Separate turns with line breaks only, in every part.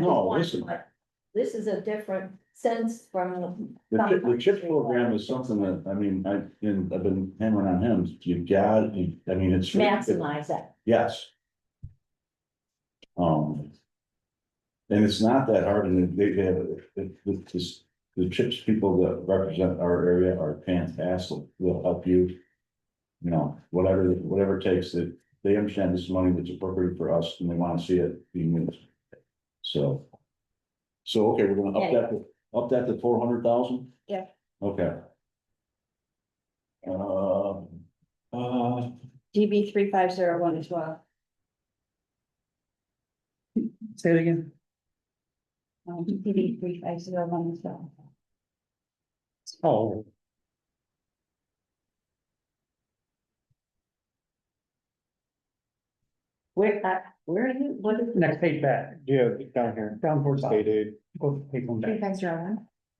was
No,
one,
listen.
but This is a different sense from.
The chip, the chip program is something that, I mean, I, and I've been hammering on him, you got, you- I mean, it's.
Maximize that.
Yes. Um. And it's not that hard, and they, they have, the, the, the- the chips people that represent our area are fantastic, will help you. You know, whatever, whatever it takes that, they understand this is money that's appropriate for us and they wanna see it being used. So. So, okay, we're gonna up that, to- up that to four hundred thousand?
Yeah.
Okay. Uh, uh,
DB three five zero one as well.
Say it again.
Um, DB three five zero one as well.
Oh.
Where, uh, where are you? What is?
Next page back. Yeah, down here. Down towards. State aid. Go to page one
Three
back.
five zero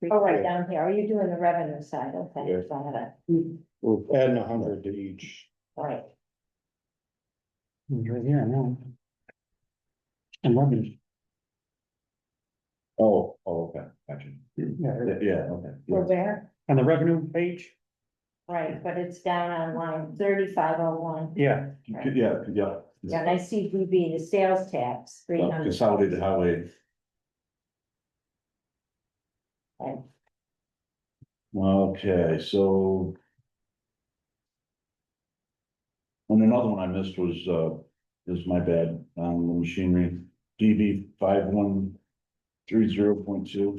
one.
Oh, right down here. Mm. Are you doing the revenue side? Okay,
Yeah.
got it.
We're adding a hundred to each.
All right.
Mm, Right here, I know. And revenue.
oh, oh, okay, gotcha.
Yeah,
Yeah, yeah, okay.
We're
yeah.
where?
on the revenue page,
Right, but it's down on line thirty-five oh one.
yeah,
Right.
Yeah, yeah.
Yeah, and I see DB, the sales tax, three
Uh,
hundred.
Consolidated highway.
Right.
Okay, so. And another one I missed was, uh, is my bad, um, the machinery, DB five one three zero point two.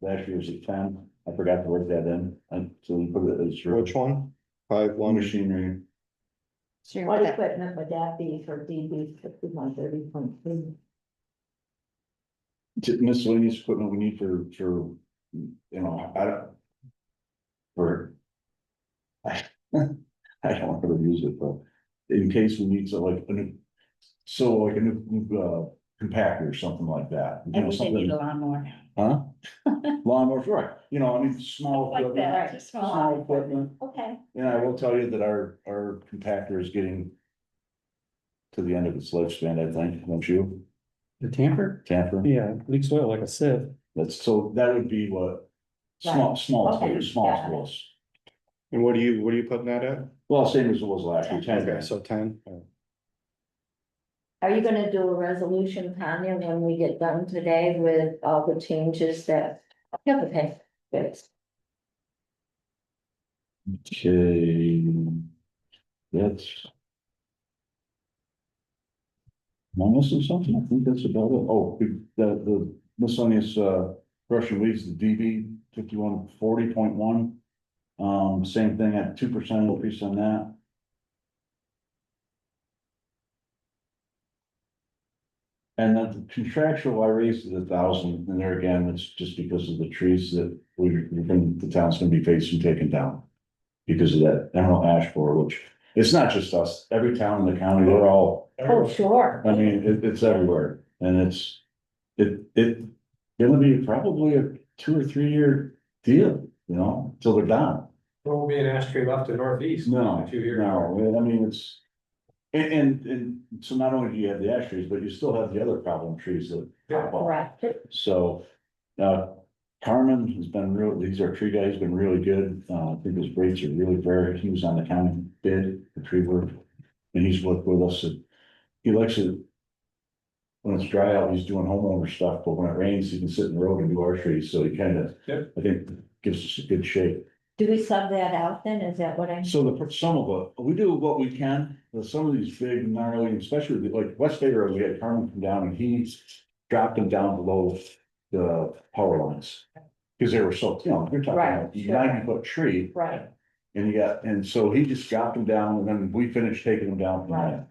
Last year was a ten, I forgot to work that in, and so we put it as zero.
Which one? Five, one,
One machinery,
What equipment would that be for DB fifty-one thirty point three?
t- miscellaneous equipment we need for, for, you know, I don't. For. I don't want to use it, but in case we need to like, a new- so like a new, uh, compactor or something like that. you know,
Everything
something,
you go on more.
Huh? Lawnmower, right, you know, I mean, small.
Like
equipment,
that, just small.
Small equipment,
Okay,
and I will tell you that our, our compactor is getting. To the end of its lifespan, I think, don't you,
the tamper,
Tamper?
yeah, leaks oil like a sieve.
That's, so that would be what, small, small,
Okay,
scale, small,
got it.
small.
and what do you, what are you putting that at?
Well, same as it was last year, ten
Okay,
grand.
so ten.
are you gonna do a resolution, Tanya, when we get done today with all the changes that? Okay, good.
Okay. That's. Am I missing something? I think that's about it. Oh, the, the miscellaneous, uh, Russian leaves, the DB fifty-one forty point one. Um, same thing at two percent increase on that. And then the contractual, I raised it a thousand, and there again, it's just because of the trees that we, we're gonna- the town's gonna be facing taken down. Because of that emerald ash borer, which, it's not just us, every town in the county, we're all,
Oh, sure.
I mean, it, it's everywhere, and it's. It, it, it'll be probably a two or three year deal, you know, till they're gone.
There won't be an ash tree left in northeast.
No,
in a few years.
no, I mean, it's. And, and, and so not only do you have the ash trees, but you still have the other problem trees that pop up.
Correct.
So, uh, Carmen has been real, these are tree guys, been really good. Uh, I think his rates are really fair. He was on the county bid, the tree work. And he's worked with us and he likes it. When it's dry out, he's doing homeowner stuff, but when it rains, he can sit in the road and do our trees. So he kind of,
Yep.
I think, gives us a good shape.
Do we sub that out then? Is that what I'm?
So the, per- some of it, we do what we can, but some of these big gnarly, especially the- like West Bay Road, we had Carmen come down and he dropped them down below the power lines. Cause they were so, you know, you're
Right,
talking
sure.
ninety foot tree
Right,
and you got, and so he just dropped them down and then we finished taking them down from there.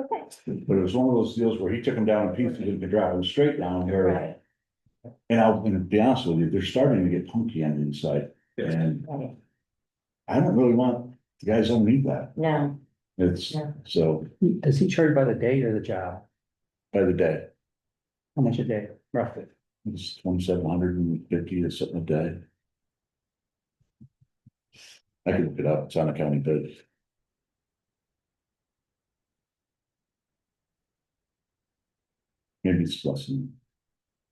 okay,
But it was one of those deals where he took them down in pieces and could drive them straight down here.
right,
And I'll, and to be honest with you, they're starting to get punky on the inside
Yeah.
and
right.
I don't really want, the guys don't need that.
No,
It's,
Yeah.
so.
Does he charge by the day or the job?
by the day.
How much a day, roughly?
It's twenty-seven hundred and fifty or something a day. I can look it up, it's on the county bid. Maybe it's less than